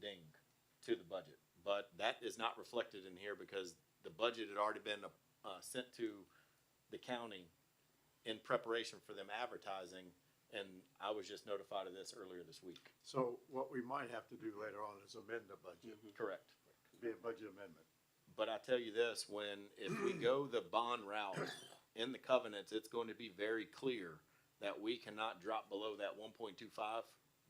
ding to the budget. But that is not reflected in here because the budget had already been, uh, sent to the county in preparation for them advertising, and I was just notified of this earlier this week. So what we might have to do later on is amend the budget, Correct. be a budget amendment. But I tell you this, when, if we go the bond route in the covenants, it's going to be very clear that we cannot drop below that one point two five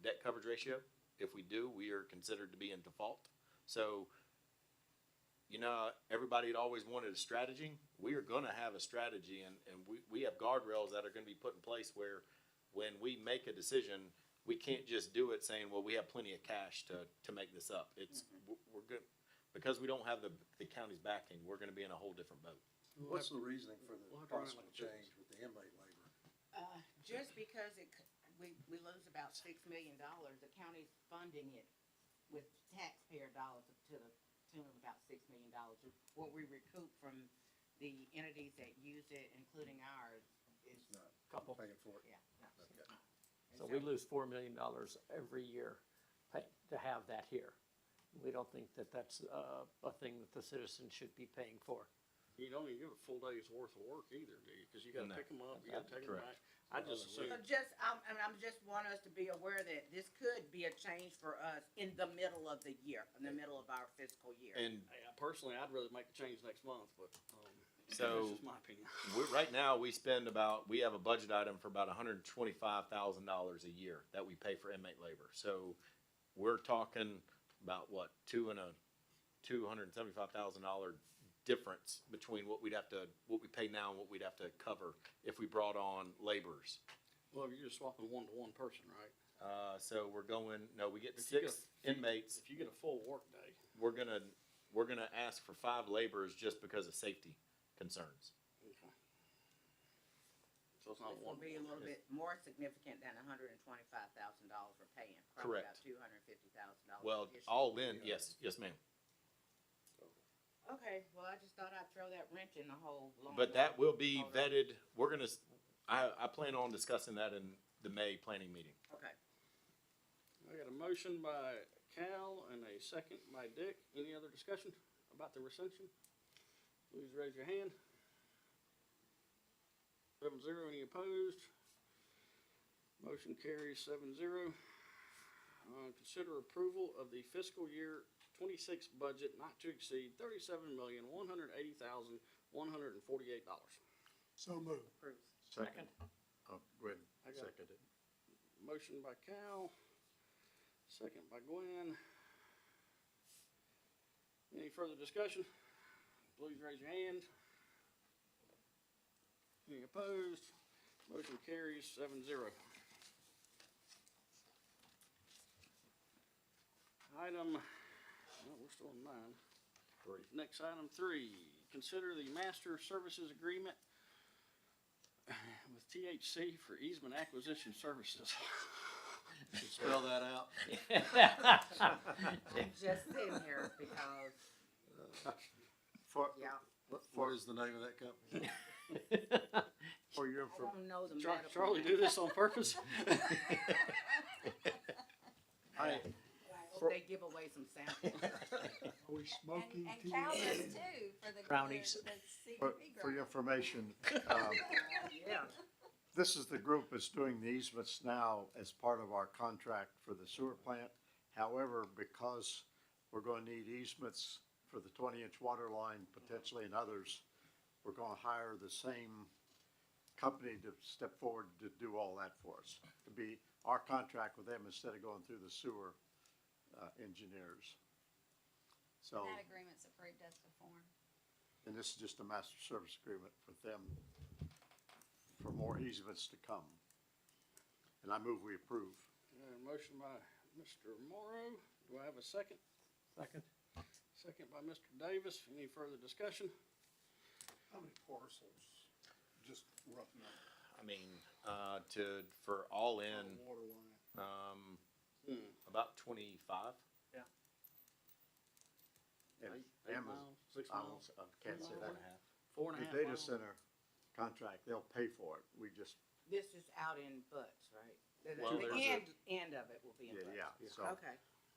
debt coverage ratio. If we do, we are considered to be in default. So, you know, everybody had always wanted a strategy. We are gonna have a strategy and, and we, we have guardrails that are gonna be put in place where when we make a decision, we can't just do it saying, well, we have plenty of cash to, to make this up. It's, we're- we're good, because we don't have the, the county's backing, we're gonna be in a whole different boat. What's the reasoning for the We'll have to run it possible like a business. change with the inmate labor? Uh, Just because it, c- we, we lose about six million dollars, the county's funding it with taxpayer dollars to the tune of about six million dollars. What we recoup from the entities that use it, including ours, is, It's not couple. paying for it. yeah. no. Okay. And So we lose four million dollars every year pa- to have that here. We don't think that that's uh, a thing that the citizens should be paying for. You don't even give a full day's worth of work either, do you? Cause you gotta No. pick them up, you gotta take them Correct. back. I just So assume, So just, I'm, and I'm just want us to be aware that this could be a change for us in the middle of the year, in the middle of our fiscal year. And Hey, I personally, I'd rather make the change next month, but, um, So- that's just my opinion. we're, right now, we spend about, we have a budget item for about hundred and twenty-five thousand dollars a year that we pay for inmate labor. So we're talking about what, two and a, two hundred and seventy-five thousand dollar difference between what we'd have to, what we pay now and what we'd have to cover if we brought on laborers. Well, you're just swapping one to one person, right? Uh, so we're going, no, we get If you go- six inmates, If you get a full workday, we're gonna, we're gonna ask for five laborers just because of safety concerns. okay. So it's not This will one. be a little bit more significant than hundred and twenty-five thousand dollars we're paying. Correct. Two hundred and fifty thousand dollars. Well, all in, yes, yes, ma'am. Okay, well, I just thought I'd throw that wrench in the whole. long But that road. will be Hold on. vetted, we're gonna, s- I, I plan on discussing that in the May planning meeting. I Okay. got a motion by Cal and a second by Dick. Any other discussion about the recension? Please raise your hand. Seven zero, any opposed? Motion carries seven zero. Uh, consider approval of the fiscal year twenty-six budget not to exceed thirty-seven million, one hundred eighty thousand, one hundred and forty-eight dollars. So moved. Approved. Second. Oh, Gwen, I got it. seconded. Motion by Cal, second by Gwen. Any further discussion? Please raise your hand. Any opposed? Motion carries seven zero. Item, well, we're still on nine. Three. Next item three, consider the master services agreement with THC for easement acquisition services. Spell that out. I'm just sitting here because, For, yeah, What, what is the name of that company? for your, I infor- don't know the Char- medical. Charlie do this on purpose? I, I hope they give away some samples. are we smoking And, and tea? Calvin's too, for the, Brownies. the For, CDP for your grant. information, um, Yeah. This is the group that's doing the easements now as part of our contract for the sewer plant. However, because we're gonna need easements for the twenty-inch water line potentially and others, we're gonna hire the same company to step forward to do all that for us. To be our contract with them instead of going through the sewer, uh, engineers. So, That agreement's approved as the form. and this is just a master service agreement with them for more easements to come. And I move we approve. Uh, Motion by Mr. Morrow. Do I have a second? Second. Second by Mr. Davis. Any further discussion? How many parcels? Just rough number. I mean, uh, to, for all in, Water line. um, Hmm. about twenty-five. And Eight- eight Amazon- miles, Six I miles? don't- I can't say Four and that. a half. Four and a The half data miles? center contract, they'll pay for it. We just, This is out in Butts, right? The, Well, the there's a- end, end of it will be in yeah, Butts. yeah, so. Okay,